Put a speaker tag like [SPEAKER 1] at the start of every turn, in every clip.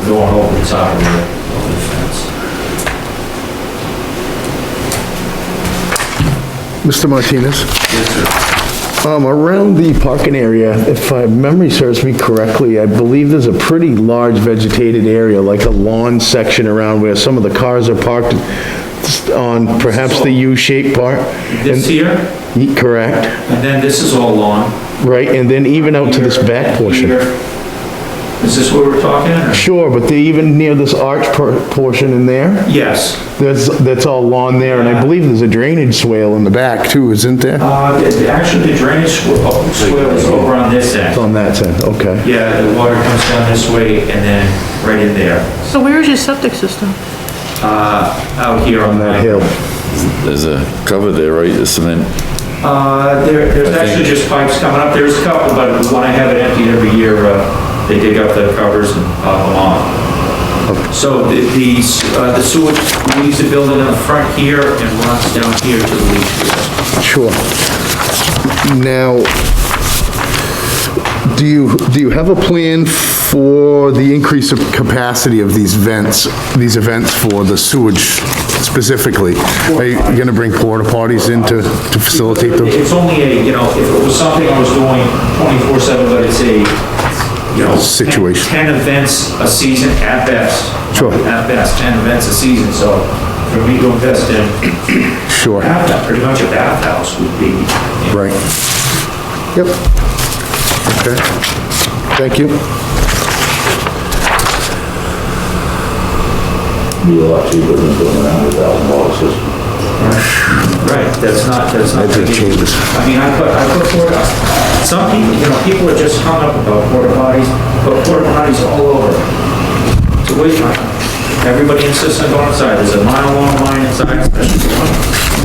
[SPEAKER 1] going over the top of the, of the fence.
[SPEAKER 2] Mr. Martinez?
[SPEAKER 1] Yes, sir.
[SPEAKER 2] Um, around the parking area, if my memory serves me correctly, I believe there's a pretty large vegetated area, like a lawn section around where some of the cars are parked on perhaps the U-shaped part.
[SPEAKER 1] This here,
[SPEAKER 2] And- Correct,
[SPEAKER 1] and then this is all lawn.
[SPEAKER 2] right, and then even out Oh, to this
[SPEAKER 1] Here,
[SPEAKER 2] back
[SPEAKER 1] and
[SPEAKER 2] portion.
[SPEAKER 1] here. Is this what we're talking? or-
[SPEAKER 2] Sure, but they even near this arch per- portion in there,
[SPEAKER 1] Yes.
[SPEAKER 2] that's, that's all lawn there, and I believe there's a drainage swale in the back too, isn't there?
[SPEAKER 1] Uh, the- the- actually, the drainage sw- oh, swale is over on this end.
[SPEAKER 2] On that side, okay.
[SPEAKER 1] Yeah, the water comes down this way and then right in there,
[SPEAKER 3] So where is your septic system?
[SPEAKER 1] out here on
[SPEAKER 2] That
[SPEAKER 1] that
[SPEAKER 2] hill,
[SPEAKER 4] There's a cover there, right, the cement?
[SPEAKER 1] Uh, there, there's actually just pipes coming up, there's a couple, but when I have it emptied every year, uh, they dig up the covers and pop them off. So the, the s- uh, the sewage leaves the building in the front here and runs down here to the leach field.
[SPEAKER 2] sure. Now, do you, do you have a plan for the increase of capacity of these vents, these events for the sewage specifically? Are you gonna bring porta potties in to, to facilitate them?
[SPEAKER 1] It's only a, you know, if it was something I was doing twenty-four seven, but it's a, you know.
[SPEAKER 2] Situation.
[SPEAKER 1] Ten ten events a season at best.
[SPEAKER 2] Sure.
[SPEAKER 1] At best, ten events a season, so for me to invest in
[SPEAKER 2] Sure,
[SPEAKER 1] bath, pretty much a bathhouse would be. you know,
[SPEAKER 2] right. Yep. Okay, thank you.
[SPEAKER 5] be a lot cheaper than doing a hundred thousand dollar system.
[SPEAKER 1] Right, that's not, that's not.
[SPEAKER 2] Maybe it changes.
[SPEAKER 1] I mean, I put, I put porta, some people, you know, people are just hung up about porta potties, but porta potties all over. It's a waste of time. Everybody insists on going inside, there's a mile long line inside, especially for women,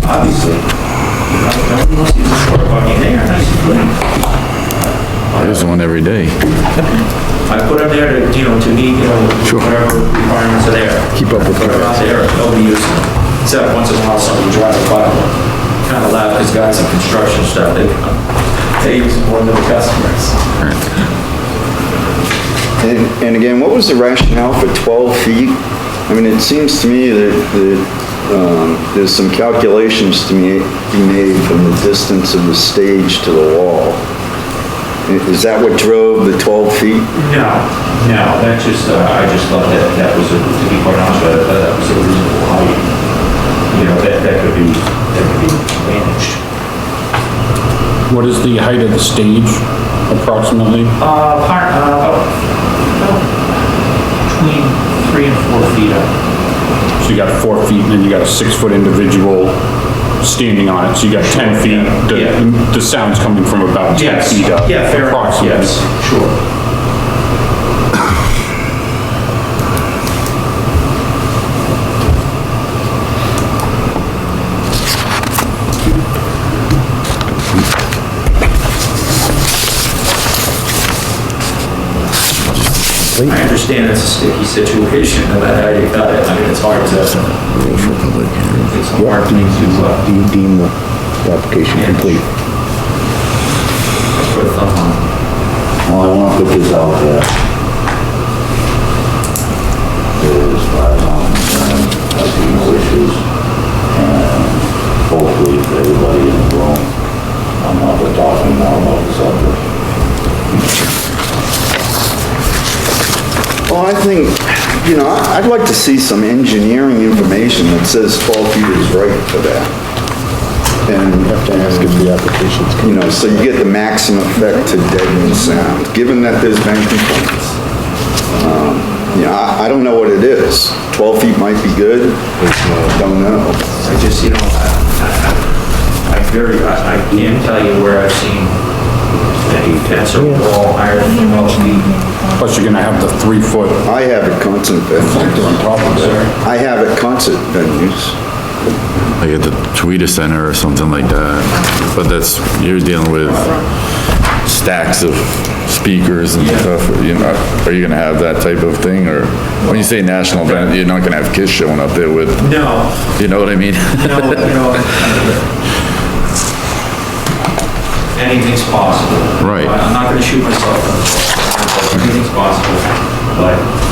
[SPEAKER 1] obviously. You know, Nobody wants to use a porta potty in there, nice and clean.
[SPEAKER 4] There's one every day.
[SPEAKER 1] I put them there to, you know, to meet, you know, whatever requirements are there.
[SPEAKER 2] Keep up with
[SPEAKER 1] But they're not there, nobody uses them, except once in a while somebody drives by them. Kind of loud, because guys in construction stuff, they, they use more than the customers.
[SPEAKER 6] And and again, what was the rationale for 12 feet? I mean, it seems to me that, that um, there's some calculations to me- be made from the distance of the stage to the wall. I- Is that what drove the 12 feet?
[SPEAKER 1] No, no, that just, uh, I just thought that, that was, a- to be quite honest, that, that was a reasonable height. You know, that, that could be, that could be managed.
[SPEAKER 7] What is the height of the stage approximately?
[SPEAKER 1] Uh, part, uh, about, about between three and four feet up.
[SPEAKER 7] So you got four feet and then you got a six-foot individual standing on it, so you got 10 feet.
[SPEAKER 1] Yeah.
[SPEAKER 7] The, the sound's coming from about 10
[SPEAKER 1] Yes,
[SPEAKER 7] feet up.
[SPEAKER 1] yeah, fair enough,
[SPEAKER 7] approximately.
[SPEAKER 1] yes, sure. I understand it's a sticky situation, no matter how you cut it, I mean, it's hard to, it's hard to, uh,
[SPEAKER 2] Do you deem the application complete?
[SPEAKER 1] put a thumb on.
[SPEAKER 5] Well, I wanna put this out there. There's five on, um, I've seen no issues. And hopefully for everybody in the room, I'm not the talking now about the subject.
[SPEAKER 6] Well, I think, you know, I- I'd like to see some engineering information that says 12 feet is right for that. And, and,
[SPEAKER 2] the application's
[SPEAKER 6] you know, so you get the maximum effect to deaden sound, given that there's been complaints. Um, You know, I I don't know what it is. 12 feet might be good, don't know.
[SPEAKER 1] I just, you know, I- I, I, I very, I I can't tell you where I've seen any fence or wall higher than twelve feet.
[SPEAKER 7] Plus you're gonna have the three-foot
[SPEAKER 6] I have at concert venues. I have at concert venues.
[SPEAKER 4] like at the Tweeter Center or something like that. But that's, you're dealing with stacks of speakers and stuff, you know, are you gonna have that type of thing, or? When you say national event, you're not gonna have kids showing up there with,
[SPEAKER 1] No,
[SPEAKER 4] you know what I mean?
[SPEAKER 1] no, you know. Anything's possible.
[SPEAKER 4] Right.
[SPEAKER 1] I'm not gonna shoot myself. in the foot. Anything's possible, but